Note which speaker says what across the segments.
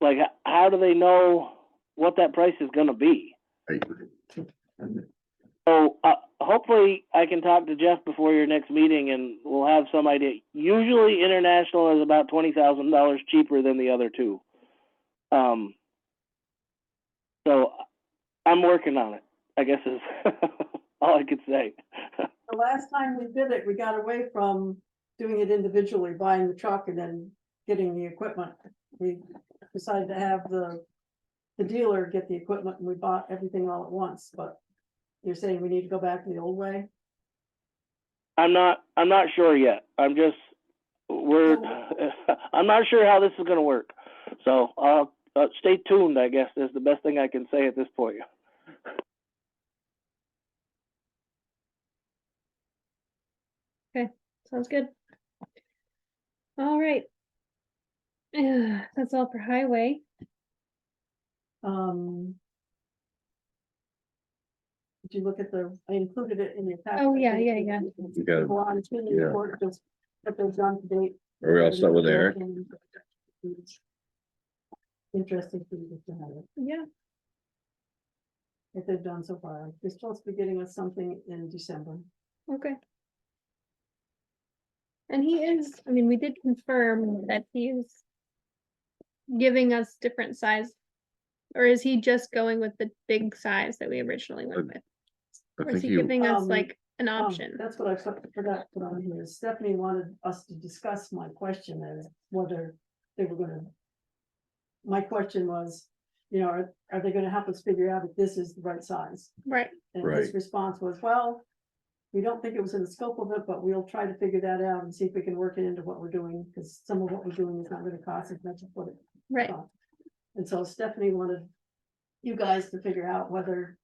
Speaker 1: like, h- how do they know what that price is gonna be?
Speaker 2: Right.
Speaker 1: So, uh, hopefully I can talk to Jeff before your next meeting and we'll have some idea. Usually international is about twenty thousand dollars cheaper than the other two. Um, so I'm working on it, I guess is all I could say.
Speaker 3: The last time we did it, we got away from doing it individually, buying the truck and then getting the equipment. We decided to have the, the dealer get the equipment and we bought everything all at once, but you're saying we need to go back to the old way?
Speaker 1: I'm not, I'm not sure yet. I'm just, we're, I'm not sure how this is gonna work. So, uh, uh, stay tuned, I guess, is the best thing I can say at this point.
Speaker 4: Sounds good. All right. Yeah, that's all for highway.
Speaker 3: Um. Did you look at the, I included it in your. packet.
Speaker 4: Oh, yeah, yeah, yeah.
Speaker 2: You got it.
Speaker 3: Go on to the
Speaker 2: Yeah.
Speaker 3: report, just what they've done to date.
Speaker 2: Are we all set with Eric?
Speaker 3: Interesting for you to have it.
Speaker 4: Yeah,
Speaker 3: that they've done so far. They're supposed to be getting us something in December.
Speaker 4: okay. And he is, I mean, we did confirm that he's giving us different size. Or is he just going with the big size that we originally
Speaker 2: Uh,
Speaker 4: went with?
Speaker 2: I
Speaker 4: Or is
Speaker 2: think
Speaker 4: he
Speaker 2: you,
Speaker 4: giving us
Speaker 3: Um,
Speaker 4: like an
Speaker 3: Oh,
Speaker 4: option?
Speaker 3: That's what I for- forgot to put on here. Stephanie wanted us to discuss my question as whether they were gonna. My question was, you know, are, are they gonna help us figure out if this is the right size?
Speaker 4: Right,
Speaker 3: And his
Speaker 2: Right.
Speaker 3: response was, well, we don't think it was in the scope of it, but we'll try to figure that out and see if we can work it into what we're doing, because some of what we're doing is not gonna cost as much as what it
Speaker 4: right,
Speaker 3: Uh, And so Stephanie wanted you guys to figure out whether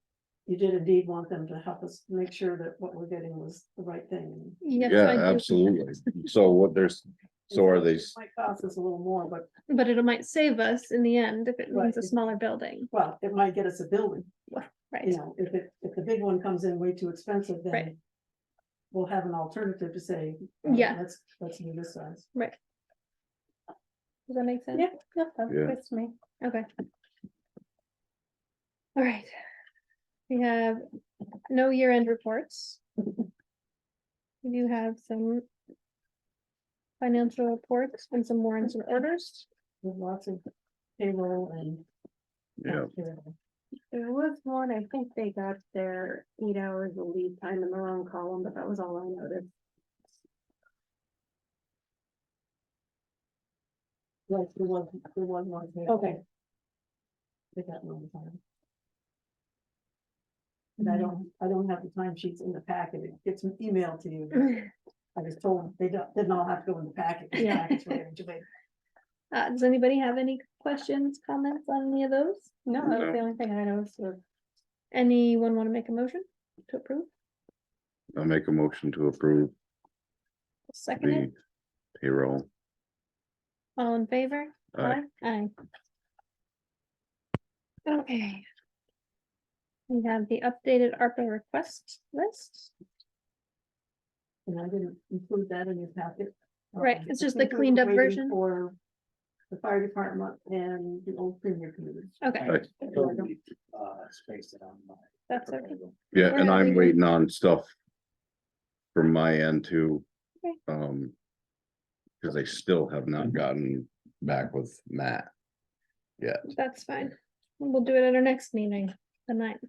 Speaker 3: you did indeed want them to help us make sure that what we're getting was the right thing.
Speaker 4: yes.
Speaker 2: yeah,
Speaker 4: I do.
Speaker 2: absolutely. So what there's, so are they,
Speaker 3: It Might cost us a little more, but
Speaker 4: But it might save us in the end if it
Speaker 3: Right,
Speaker 4: means a
Speaker 3: if-
Speaker 4: smaller building,
Speaker 3: well, it might get us a building,
Speaker 4: right?
Speaker 3: you know, if it, if the big one comes in way too expensive,
Speaker 4: Right.
Speaker 3: then. We'll have an alternative to say. uh,
Speaker 4: Yeah.
Speaker 3: Let's, let's do this size.
Speaker 4: Does that make sense?
Speaker 3: Yeah, yeah,
Speaker 2: Yeah.
Speaker 4: That's me. Okay. All right. We have no year-end reports. We do have some financial reports and some warrants and orders.
Speaker 3: There's lots of payroll and.
Speaker 2: yeah,
Speaker 5: There was one, I think they got their eight hours of lead time in the wrong column, but that was all I noticed.
Speaker 3: Like, there was, there was one. there.
Speaker 5: Okay.
Speaker 3: They got one time. And I don't, I don't have the time sheets in the packet, it gets emailed to you, but
Speaker 4: Uh,
Speaker 3: I was told they don't, didn't all have to go in the packet. The
Speaker 4: Yeah.
Speaker 3: packets were individual.
Speaker 4: Uh, does anybody have any questions, comments on any of those?
Speaker 5: No, that
Speaker 2: No.
Speaker 5: was the only thing I noticed was
Speaker 4: Anyone want to make a motion to approve?
Speaker 2: I'll make a motion to approve
Speaker 4: Second it,
Speaker 2: the payroll.
Speaker 4: all in favor?
Speaker 2: Aye.
Speaker 4: Aye. Okay. We have the updated ARPA request list.
Speaker 3: And I didn't include that in your packet.
Speaker 4: Right,
Speaker 3: Um,
Speaker 4: it's just
Speaker 3: I think
Speaker 4: the
Speaker 3: we were
Speaker 4: cleaned up
Speaker 3: waiting
Speaker 4: version.
Speaker 3: For the fire department and the old premier committee.
Speaker 4: Okay,
Speaker 2: Right.
Speaker 3: I don't-
Speaker 4: that's okay.
Speaker 2: Yeah, and
Speaker 4: Alright,
Speaker 2: I'm
Speaker 4: we-
Speaker 2: waiting on stuff from my end too.
Speaker 4: Okay. Mm-hmm.
Speaker 2: Um, because I still have not gotten back with Matt.
Speaker 4: That's fine. We'll do it at our next meeting, the ninth.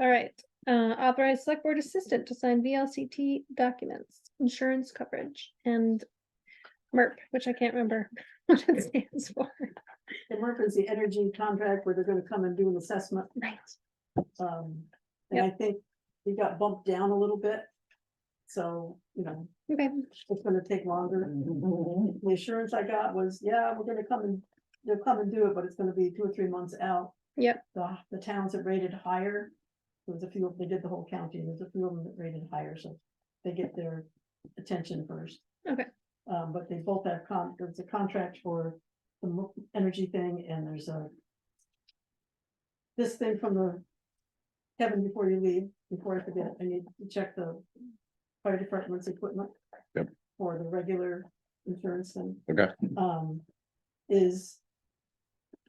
Speaker 4: All right, uh, authorized select board assistant to sign VLCT documents, insurance coverage and MERP, which I can't remember what it stands for.
Speaker 3: The MERP is the energy contract where they're gonna come and do an assessment
Speaker 4: Right.
Speaker 3: Um, and I think we got bumped down a little bit. So, you know,
Speaker 4: Okay,
Speaker 3: it's gonna take longer.
Speaker 4: Mm-hmm.
Speaker 3: The assurance I got was, yeah, we're gonna come and, they'll come and do it, but it's gonna be two or three months out.
Speaker 4: Yep.
Speaker 3: The, the towns that rated higher, there was a few, of- they did the whole county, there's a few of them that rated higher, so they get their attention first.
Speaker 4: Okay.
Speaker 3: Um, but they both have con, there's a contract for the mo- energy thing and there's a this thing from the Kevin, before you leave, before I forget, I need to check the fire department's equipment.
Speaker 2: Yep.
Speaker 3: For the regular insurance and
Speaker 2: Okay,
Speaker 3: um, is